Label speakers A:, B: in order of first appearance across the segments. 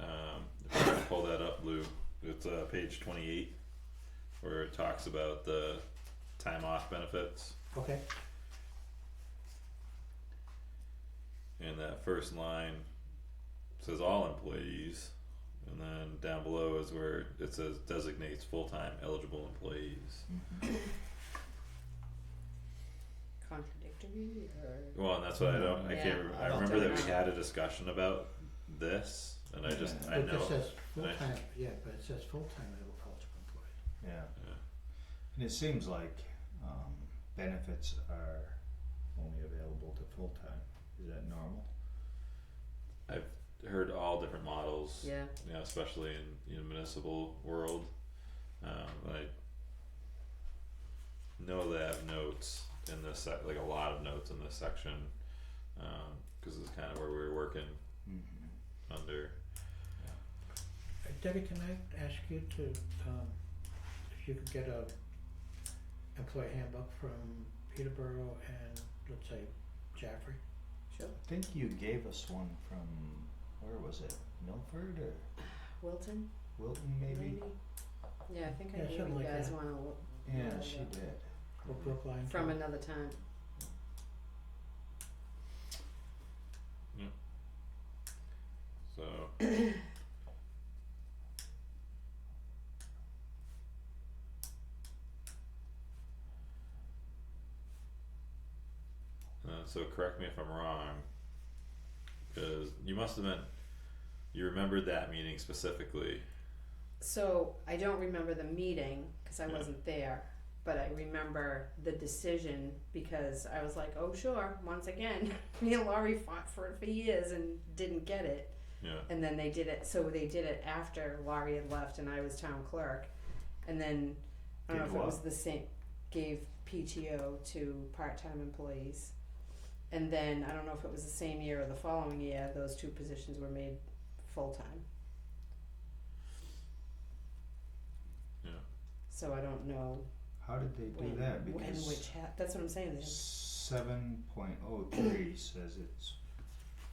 A: Um, it's uh page twenty-eight, where it talks about the time off benefits.
B: okay,
A: And that first line says all employees, and then down below is where it says designates full-time eligible employees.
C: Contradictory or?
A: Well, and that's what I don't, I can't,
C: Yeah.
A: rem-
B: I
A: I
B: don't
A: remember that
C: think-
A: we had a discussion about this, and I just, I
B: but
A: know,
B: it says
A: and I-
B: full-time, yeah, but it says full-time eligible employee,
D: Yeah,
A: Yeah.
D: and it seems like, um, benefits are only available to full-time, is that normal?
A: heard all different models.
C: Yeah,
A: you know, especially in you know, municipal world. Um, I know they have notes in this sec- like a lot of notes in this section, because it's kind of where we were working
D: Mm-hmm.
A: under.
B: Uh, Debbie, can I ask you to, um, if you could get a employee handbook from Peterborough and, let's say, Jaffrey?
C: sure.
D: I think you gave us one from, where was it, Milford or
C: Wilton,
D: Wilton maybe?
C: maybe? Yeah, I think I
B: Yeah,
C: gave
B: something
C: you
B: like
C: guys
B: that.
C: one a little.
D: Yeah, she did.
B: Or Brookline?
C: From
B: too?
C: another time.
A: So Uh, so correct me if I'm wrong, because you must have been, you remembered that meeting specifically.
C: So I don't remember the meeting, cause I
A: Yeah.
C: wasn't there, but I remember the decision, because I was like, oh, sure, once again. Me and Laurie fought for it for years and didn't get it,
A: Yeah.
C: and then they did it, so they did it after Laurie had left and I was town clerk. And then, I don't know
D: Did
C: if it
D: what?
C: was the same, gave PTO to part-time employees. And then, I don't know if it was the same year or the following year, those two positions were made full-time.
A: Yeah.
C: So I don't know
D: How did they
C: when,
D: do that?
C: when, which
D: Because
C: ha- that's what I'm saying, they-
D: seven point oh three says it's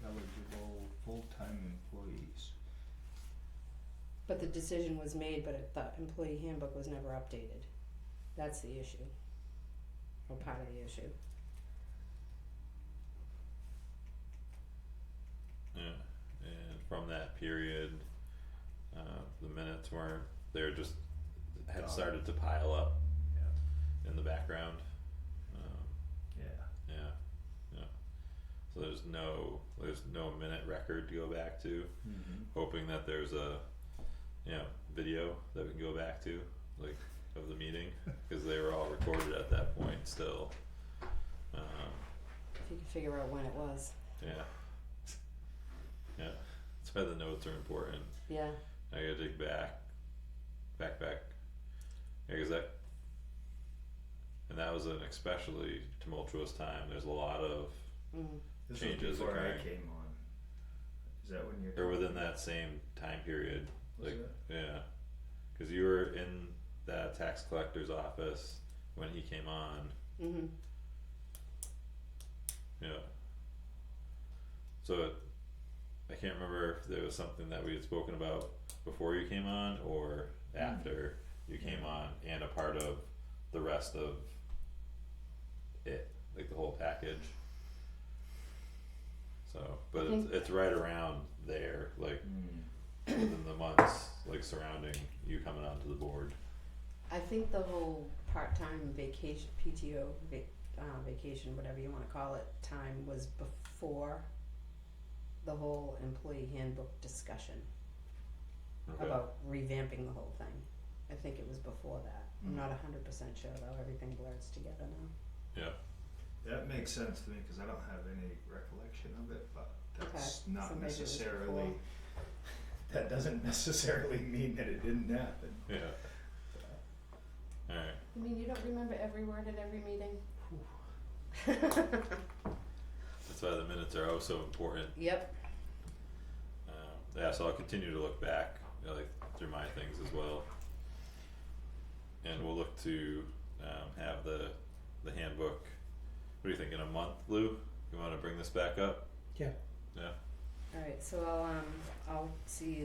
D: eligible full-time employees.
C: but the decision was made, but it, the employee handbook was never updated. That's the issue. Or part of the issue.
A: Yeah, and from that period, uh, the minutes weren't, they're just, had
D: Gone.
A: started to pile up in the background. Um,
D: Yeah.
A: yeah, yeah. So there's no, there's no minute record to go back to,
D: Mm-hmm.
A: hoping that there's a, you know, video that we can go back to, like, of the meeting, cause they were all recorded at that point still. Um,
C: If you can figure out when it was.
A: yeah. Yeah, that's why the notes are important.
C: Yeah.
A: I gotta dig back, back, back. Yeah, 'cause that, and that was an especially tumultuous time. There's a lot of,
C: Mm.
D: This
A: Changes
D: was before
A: occurring.
D: I came on. Is that when you're?
A: or within that same time period,
D: Was
A: like-
D: it?
A: yeah. Cause you were in that tax collector's office when he came on,
C: Mm-hmm.
A: yeah. So it, I can't remember if there was something that we had spoken about before you came on or after you came on and a part of the rest of it, like the whole package. So, but it's, it's right around there, like
D: Mm.
A: within the months, like surrounding you coming onto the board.
C: I think the whole part-time vacation, PTO, vac- uh, vacation, whatever you wanna call it, time was before the whole employee handbook discussion
A: Okay.
C: about revamping the whole thing. I think it was before that. I'm
D: Mm.
C: not hundred percent sure though, everything blurs together now.
D: That makes sense to me because I don't have any recollection of it, but that's
C: Okay, so
D: not
C: maybe it was
D: necessarily.
C: before.
D: That doesn't necessarily mean that it didn't happen.
A: Yeah. Alright,
C: I mean, you don't remember every word at every meeting?
A: that's why the minutes are oh so important.
C: Yep,
A: Um, yeah, so I'll continue to look back, you know, like through my things as well. And we'll look to um, have the the handbook. What do you think in a month, Lou? You want to bring this back up?
B: Yeah.
A: Yeah.
C: alright, so I'll um, I'll see